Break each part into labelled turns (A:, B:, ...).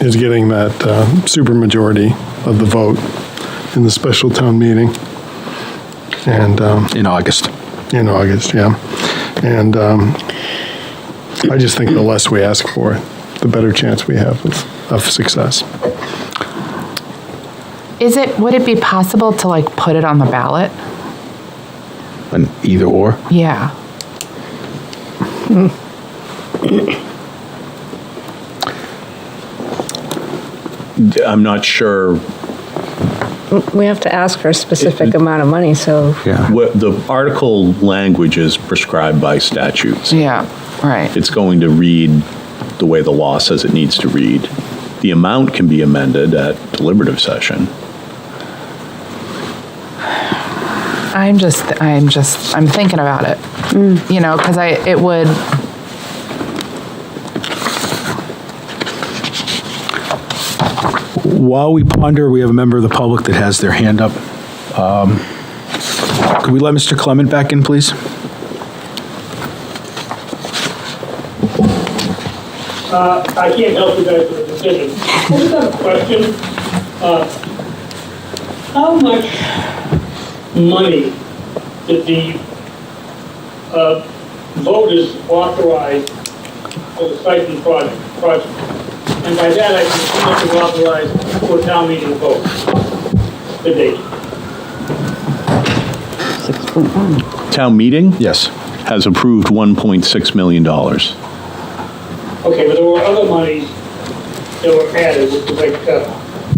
A: is getting that uh, supermajority of the vote in the special town meeting. And, um,
B: in August.
A: in August, yeah. And um, I just think the less we ask for, the better chance we have of, of success.
C: Is it, would it be possible to like put it on the ballot?
B: An either or.
C: Yeah.
D: I'm not sure
E: We have to ask for a specific amount of money, so
B: Yeah.
D: what, the article language is prescribed by statutes.
C: Yeah, right.
D: It's going to read the way the law says it needs to read. The amount can be amended at deliberative session.
C: I'm just, I'm just, I'm thinking about it. You know, because I, it would,
B: While we ponder, we have a member of the public that has their hand up. Um, Could we let Mr. Clement back in, please?
F: I can't help you guys with the decision. I just have a question. Uh, How much money did the uh, voters authorize for the stipend project? project? And by that, I mean how much was authorized for town meeting vote to date?
D: Town meeting
B: Yes.
D: has approved $1.6 million.
F: Okay, but there were other monies that were added, which was like uh,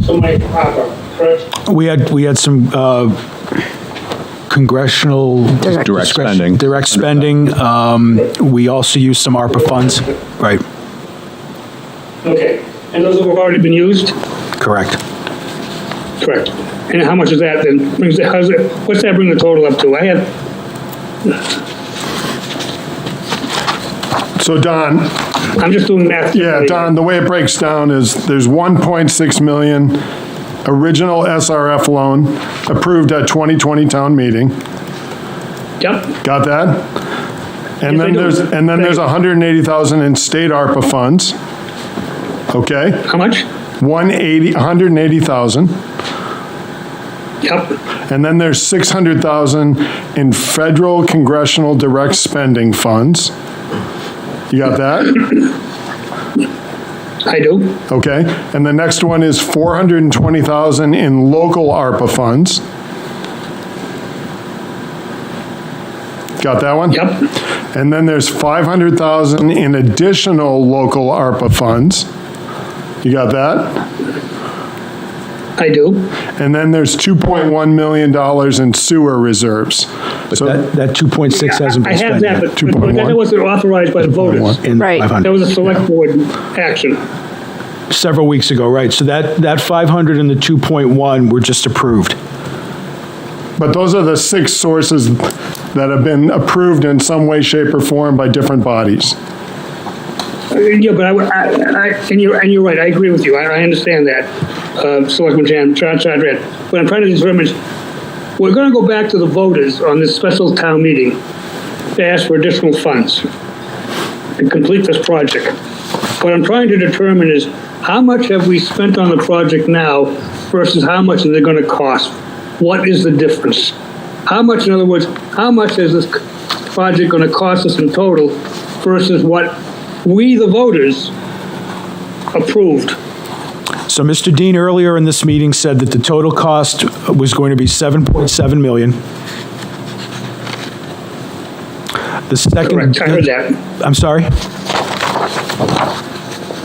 F: some money from ARPA, correct?
B: We had, we had some uh, congressional.
E: Direct.
D: Direct
B: discretion-
D: spending.
B: Direct spending. Um, We also used some ARPA funds. Right,
F: Okay, and those have already been used?
B: correct.
F: Correct. And how much is that then? Brings it, how's it, what's that bring the total up to? I have,
A: So Don,
F: I'm just doing math.
A: yeah, Don, the way it breaks down is there's 1.6 million original SRF loan approved at 2020 town meeting.
F: Yep,
A: Got that? And
F: Yes, I
A: then
F: do.
A: there's, and then there's 180,000 in state ARPA funds. Okay?
F: how much?
A: 180, 180,000.
F: Yep,
A: And then there's 600,000 in federal congressional direct spending funds. You got that?
F: I do.
A: Okay. And the next one is 420,000 in local ARPA funds. Got that one?
F: Yep,
A: And then there's 500,000 in additional local ARPA funds. You got that?
F: I do.
A: And then there's 2.1 million dollars in sewer reserves. So
B: That, that 2.6 hasn't
F: I
B: been
F: have
B: spent yet.
F: that, but but
A: 2.1.
F: that wasn't authorized by the voters.
B: In
E: Right.
B: 500.
F: That was a select board action. Uh,
B: several weeks ago, right? So that, that 500 and the 2.1 were just approved.
A: But those are the six sources that have been approved in some way, shape, or form by different bodies.
F: Uh, Yeah, but I, would- I, I- and you're, and you're right, I agree with you, I, I understand that, uh, Selectman Chan, Chan Chandran. What I'm trying to determine is, we're gonna go back to the voters on this special town meeting to ask for additional funds and complete this project. What I'm trying to determine is, how much have we spent on the project now versus how much is it gonna cost? What is the difference? How much, in other words, how much is this project gonna cost us in total versus what we, the voters, approved?
B: So Mr. Dean earlier in this meeting said that the total cost was going to be 7.7 million. The second.
F: Correct, I heard that.
B: I'm sorry?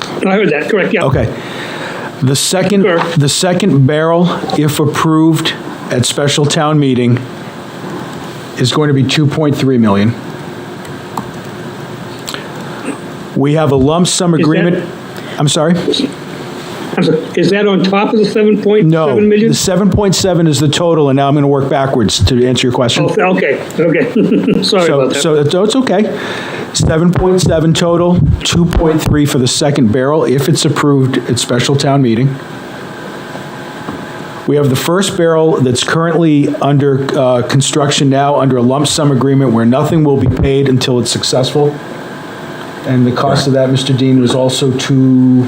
F: No, I heard that, correct, yeah.
B: Okay. The second,
F: Sure.
B: the second barrel, if approved at special town meeting, is going to be 2.3 million. We have a lump sum agreement. I'm sorry?
F: I'm sorry, Is that on top of the 7.7
B: No,
F: million?
B: the seven point seven is the total, and now I'm going to work backwards to answer your question.
F: Oh, Okay, okay, sorry
B: So,
F: about that.
B: so it's- it's okay. Seven point seven total, two point three for the second barrel, if it's approved at special town meeting. We have the first barrel that's currently under uh, construction now, under a lump sum agreement where nothing will be paid until it's successful. And the cost of that, Mr. Dean, was also two